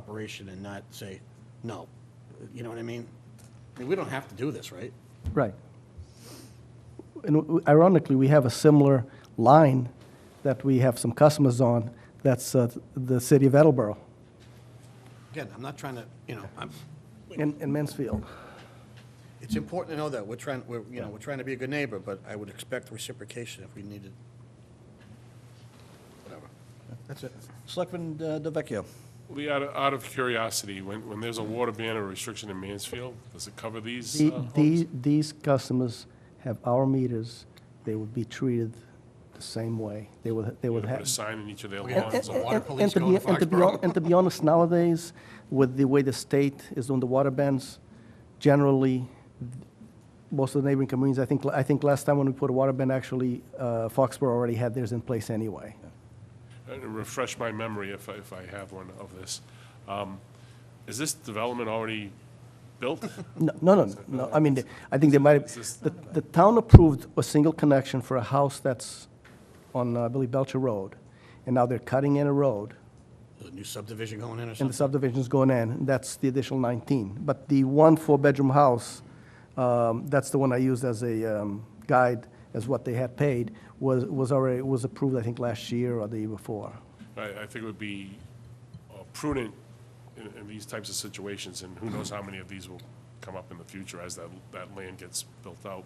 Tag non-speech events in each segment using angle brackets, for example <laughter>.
cooperation and not say, no. You know what I mean? I mean, we don't have to do this, right? Right. And w- ironically, we have a similar line that we have some customers on, that's uh, the city of Attleboro Again, I'm not trying to, you know, I'm, in in Mansfield. it's important to know that we're trying, we're, you know, we're trying to be a good neighbor, but I would expect reciprocation if we needed. Whatever. That's it. Selectman uh, DeVecchio. Lee, out of, out of curiosity, when, when there's a water ban or restriction in Mansfield, does it cover these? The- uh, homes? the- These customers have our meters, they would be treated the same way. They would, they would Put a have. sign in each of their yeah. lawns? So water And- police and to going be- to and to be Foxborough. hon- And to be honest, nowadays, with the way the state is doing the water bans, generally, most of the neighboring communities, I think, I think last time when we put a water ban, actually, uh, Foxborough already had theirs in place anyway. Uh, Refresh my memory if, I- if I have one of this. Um, Is this development already built? No, no, no, no, I mean, the- I think they might, Is this- the, the town approved a single connection for a house that's on, uh, I believe, Belcher Road, and now they're cutting in a road, There's a new subdivision going in or and the something? subdivision's going in, and that's the additional 19. But the one four-bedroom house, um, that's the one I used as a um, guide, as what they had paid, was, was already, was approved, I think, last year or the year before. I, I think it would be uh, prudent in, in these types of situations, and who knows how many of these will come up in the future as that, that land gets built out,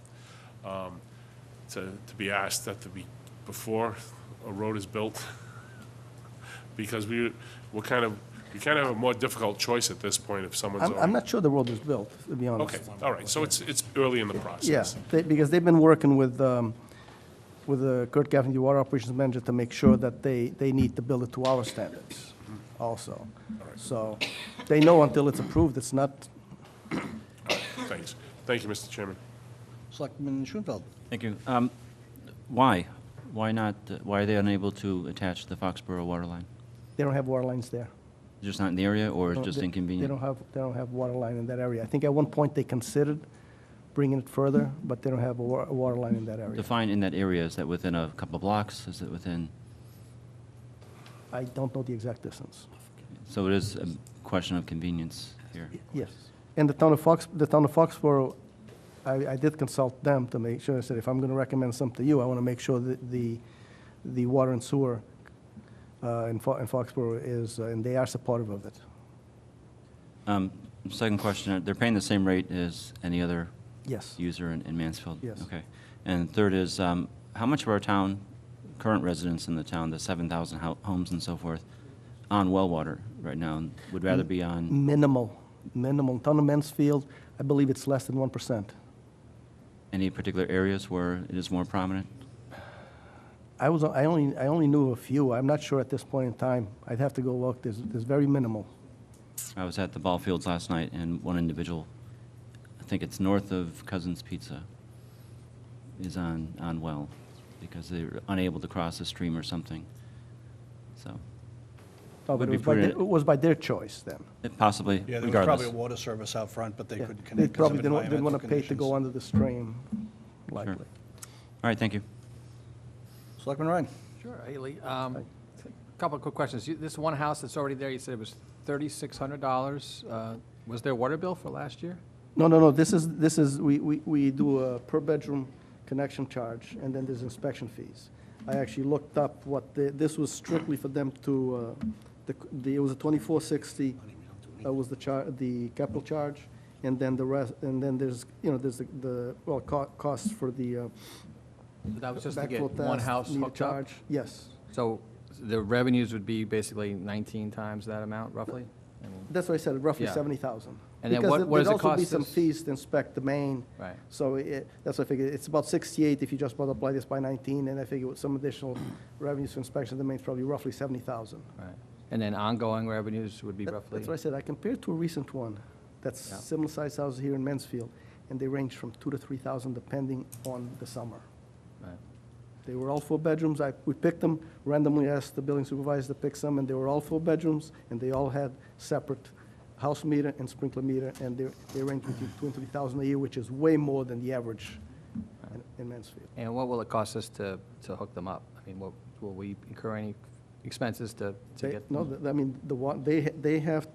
um, to, to be asked that to be, before a road is built, <laughs> because we, we're kind of, we kind of have a more difficult choice at this point if someone's I'm, I'm already. not sure the road was built, to be honest. Okay, all right, so it's, it's early in the process. Yeah, they, because they've been working with, um, with uh, Kurt Gaffney, the water operations manager, to make sure that they, they need to build it to our standards also. So they know until it's approved, it's not, Thanks. Thank you, Mr. Chairman. Selectman Schoenfeld. Thank you. Um, Why? Why not, uh, why are they unable to attach the Foxborough water line? they don't have water lines there. Just not in the area, or it's just They- inconvenient? They don't have, they don't have water line in that area. I think at one point they considered bringing it further, but they don't have a wa- a water line in that area. Define in that area, is that within a couple of blocks? Is it within, I don't know the exact distance. so it is a question of convenience here. Yes. And the town of Fox, the town of Foxborough, I, I did consult them to make sure, I said, if I'm gonna recommend something to you, I wanna make sure that the, the water and sewer uh, in Fo- in Foxborough is, uh, and they are supportive of it. Um, Second question, uh, they're paying the same rate as any other Yes. user in in Mansfield? Yes. Okay. And third is, um, how much of our town, current residents in the town, the 7,000 ho- homes and so forth, on well water right now, and would Mm, rather be on? Minimal, minimal. Town of Mansfield, I believe it's less than one percent. Any particular areas where it is more prominent? I was, I only, I only knew a few. I'm not sure at this point in time. I'd have to go look. There's, there's very minimal. I was at the ball fields last night, and one individual, I think it's north of Cousins Pizza, is on, on well, because they're unable to cross a stream or something. So, No, Oh, but Would it be was by their- prudent. It was by their choice then. it possibly, Yeah, there was probably a regardless. water service out front, but they Yeah. couldn't They connect because probably of didn't, wa- didn't environmental want to pay to go conditions. under the stream, likely. All right, thank you. Selectman Ryan. Sure, Haley. Um, Couple of quick questions. You- This one house that's already there, you said it was $3,600. Uh, Was their water bill for last year? No, no, no, this is, this is, we, we, we do a per bedroom connection charge, and then there's inspection fees. I actually looked up what, the- this was strictly for them to, uh, the, the- it was a twenty-four sixty, that was the char, the capital charge, and then the rest, and then there's, you know, there's the- the, well, co- costs for the uh, So That was just to get backflow one house test, meter hooked up? charge. Yes, So the revenues would be basically 19 times that amount roughly? I mean, that's what I said, roughly Yeah. seventy thousand. And then what- what does it Because there'd also be cost some us? fees to inspect the main, Right. So it, that's what I figured, it's about 68 if you just multiply this by 19, and I figure with some additional <clears throat> revenues for inspection, that means probably roughly 70,000. Right. And then ongoing revenues would be That- roughly? That's what I said, I compared to a recent one, that's Yeah. similar-sized houses here in Mansfield, and they range from 2 to 3,000 depending on the summer. Right. They were all four bedrooms, I, we picked them randomly, asked the building supervisor to pick some, and they were all four bedrooms, and they all had separate house meter and sprinkler meter, and they, they range between 2 and 3,000 a year, which is way more than the average in- in Mansfield. And what will it cost us to, to hook them up? I mean, what- will we incur any expenses to, to They- get? No, them? th- I mean, the one, they, ha- they have